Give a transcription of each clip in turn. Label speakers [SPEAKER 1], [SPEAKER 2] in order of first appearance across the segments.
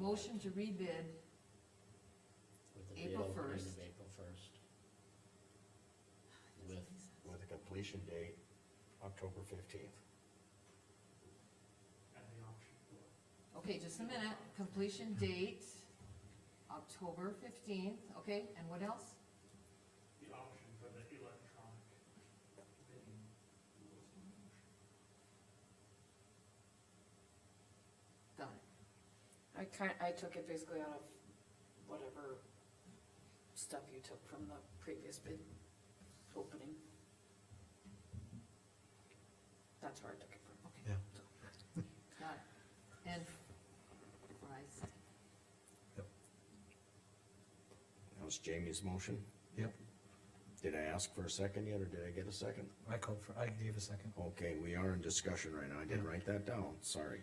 [SPEAKER 1] Motion to rebid,
[SPEAKER 2] With the bid
[SPEAKER 1] April
[SPEAKER 2] opening of
[SPEAKER 1] 1st.
[SPEAKER 2] April first. With,
[SPEAKER 3] with a completion date, October fifteenth.
[SPEAKER 4] at the auction floor.
[SPEAKER 1] okay, just a minute, completion date, October fifteenth, okay, and what else?
[SPEAKER 4] The auction for the electronic bidding rules and motion.
[SPEAKER 1] Done it.
[SPEAKER 5] I kind, I took it basically out of whatever stuff you took from the previous bid opening. That's where I took it from.
[SPEAKER 1] Okay.
[SPEAKER 6] Yeah.
[SPEAKER 1] Got it. And Fry's,
[SPEAKER 3] That was Jamie's motion.
[SPEAKER 6] Yep,
[SPEAKER 3] Did I ask for a second yet, or did I get a second?
[SPEAKER 6] I called for, I gave a second.
[SPEAKER 3] Okay, we are in discussion right now. I didn't write that down, sorry.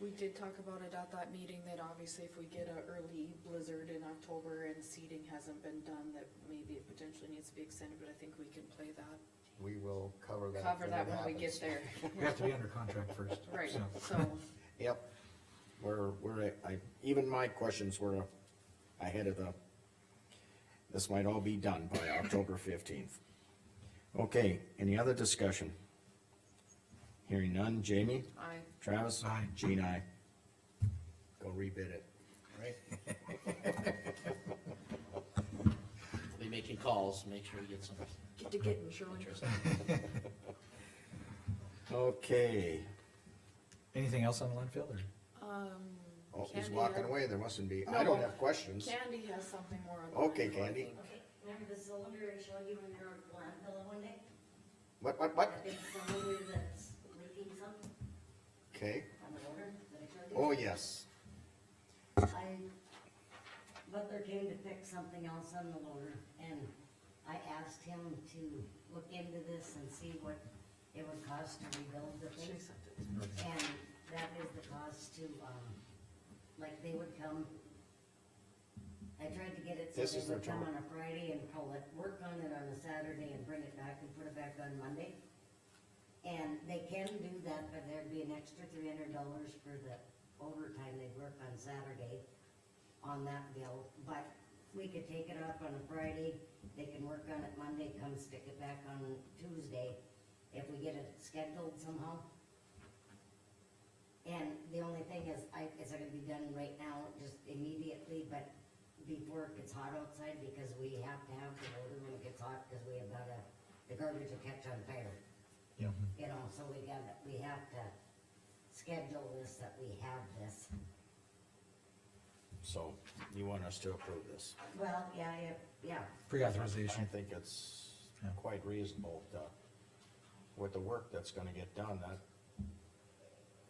[SPEAKER 5] We did talk about it at that meeting, that obviously if we get a early blizzard in October and seeding hasn't been done, that maybe it potentially needs to be extended, but I think we can play that,
[SPEAKER 3] We will cover that.
[SPEAKER 5] cover that when we get
[SPEAKER 3] happens.
[SPEAKER 5] there.
[SPEAKER 6] We have to be under contract first,
[SPEAKER 5] Right,
[SPEAKER 6] so.
[SPEAKER 5] so,
[SPEAKER 3] Yep. We're, we're, a- I, even my questions were ahead of the, this might all be done by October fifteenth. Okay, any other discussion? Hearing none, Jamie?
[SPEAKER 5] I,
[SPEAKER 3] Travis?
[SPEAKER 6] Aye.
[SPEAKER 3] Gene, aye. Go rebid it. Right.
[SPEAKER 2] we making calls, make sure we get some
[SPEAKER 5] get to getting, Shirley.
[SPEAKER 2] interest.
[SPEAKER 3] Okay.
[SPEAKER 6] Anything else on the landfill or?
[SPEAKER 5] Um.
[SPEAKER 3] Oh, he's
[SPEAKER 5] Candy,
[SPEAKER 3] walking
[SPEAKER 5] I-
[SPEAKER 3] away, there mustn't be, I don't
[SPEAKER 5] No.
[SPEAKER 3] have questions.
[SPEAKER 5] Candy has something more on. the
[SPEAKER 3] Okay,
[SPEAKER 5] menu, I
[SPEAKER 3] Candy.
[SPEAKER 5] think.
[SPEAKER 7] Okay, remember the cylinder I showed you when you were at landfill one day?
[SPEAKER 3] What, what, what?
[SPEAKER 7] That big cylinder that's leaking something
[SPEAKER 3] Okay,
[SPEAKER 7] on the motor that I showed you?
[SPEAKER 3] oh, yes,
[SPEAKER 7] I, Butler came to pick something else on the loader, and I asked him to look into this and see what it would cost to rebuild the
[SPEAKER 5] She
[SPEAKER 7] thing.
[SPEAKER 5] sent it.
[SPEAKER 7] And that is the cost to, um, like, they would come, I tried to get it so
[SPEAKER 3] This is
[SPEAKER 7] they
[SPEAKER 3] their
[SPEAKER 7] would come
[SPEAKER 3] total.
[SPEAKER 7] on a Friday and pull it, work on it on a Saturday and bring it back and put it back on Monday. And they can do that, but there'd be an extra three hundred dollars for the overtime they'd work on Saturday on that bill, but we could take it up on a Friday, they can work on it Monday, come stick it back on Tuesday, if we get it scheduled somehow. And the only thing is, I, it's not gonna be done right now, just immediately, but before it gets hot outside, because we have to have the loader when it gets hot, cause we have got a, the garbage will catch on fire,
[SPEAKER 6] Yeah.
[SPEAKER 7] you know, so we gotta, we have to schedule this, that we have this.
[SPEAKER 3] so you want us to approve this?
[SPEAKER 7] Well, yeah, yeah, yeah,
[SPEAKER 3] I
[SPEAKER 6] Pre-authorization,
[SPEAKER 3] think it's
[SPEAKER 6] Yeah.
[SPEAKER 3] quite reasonable to, with the work that's gonna get done, that,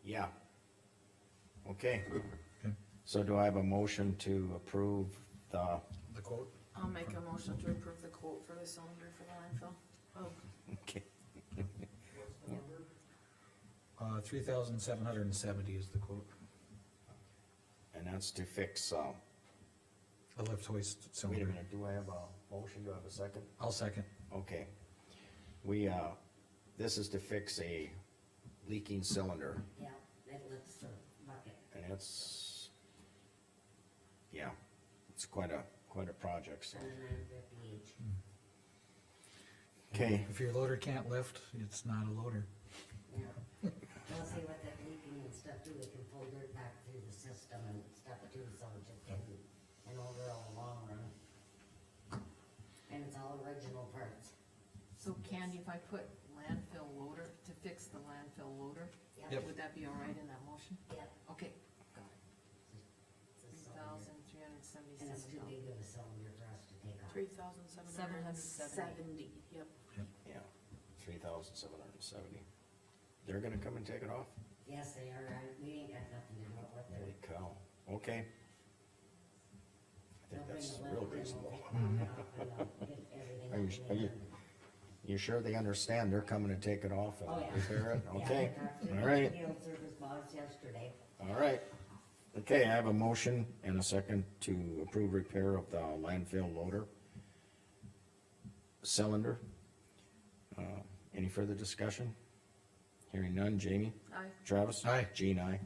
[SPEAKER 3] yeah. Okay,
[SPEAKER 6] Okay.
[SPEAKER 3] so do I have a motion to approve the,
[SPEAKER 6] the quote?
[SPEAKER 5] I'll make a motion to approve the quote for the cylinder for the landfill. Oh,
[SPEAKER 3] okay,
[SPEAKER 4] What's the number?
[SPEAKER 6] Uh, three thousand seven hundred and seventy is the quote.
[SPEAKER 3] and that's to fix, um,
[SPEAKER 6] A lift hoist
[SPEAKER 3] wait a
[SPEAKER 6] cylinder.
[SPEAKER 3] minute, do I have a motion, do I have a second?
[SPEAKER 6] I'll second.
[SPEAKER 3] Okay. We, uh, this is to fix a leaking cylinder,
[SPEAKER 7] yeah, that looks the bucket.
[SPEAKER 3] and it's, yeah, it's quite a, quite a project, so.
[SPEAKER 7] Seventy-nine fifty each.
[SPEAKER 3] Okay,
[SPEAKER 6] If your loader can't lift, it's not a loader.
[SPEAKER 7] Yeah, we'll see what that leaking and stuff do, it can pull dirt back through the system and stuff too, so it just can, an overall long run. And it's all original parts.
[SPEAKER 1] so Candy, if I put landfill loader, to fix the landfill loader,
[SPEAKER 6] Yep.
[SPEAKER 1] would that be all right in that motion?
[SPEAKER 7] Yep.
[SPEAKER 1] Okay, got it, three
[SPEAKER 7] It's a cylinder.
[SPEAKER 1] thousand three hundred seventy-seven
[SPEAKER 7] And it's too
[SPEAKER 1] dollars.
[SPEAKER 7] big of a cylinder for us to take off.
[SPEAKER 5] Three thousand seven hundred and seventy, yep.
[SPEAKER 3] yeah, three thousand seven hundred and seventy. They're gonna come and take it off?
[SPEAKER 7] Yes, they are, I, we ain't got nothing to do with
[SPEAKER 3] Holy
[SPEAKER 7] it.
[SPEAKER 3] cow, okay. I think that's real reasonable. Are you- are you- You sure they understand they're coming to take it off
[SPEAKER 7] Oh,
[SPEAKER 3] and
[SPEAKER 7] yeah.
[SPEAKER 3] repair it? Okay, all
[SPEAKER 7] Yeah, I
[SPEAKER 3] right.
[SPEAKER 7] talked to the field service boss yesterday.
[SPEAKER 3] All right. Okay, I have a motion and a second to approve repair of the landfill loader cylinder. Uh, Any further discussion? Hearing none, Jamie?
[SPEAKER 5] Aye.
[SPEAKER 3] Travis?
[SPEAKER 6] Aye.
[SPEAKER 3] Gene, aye.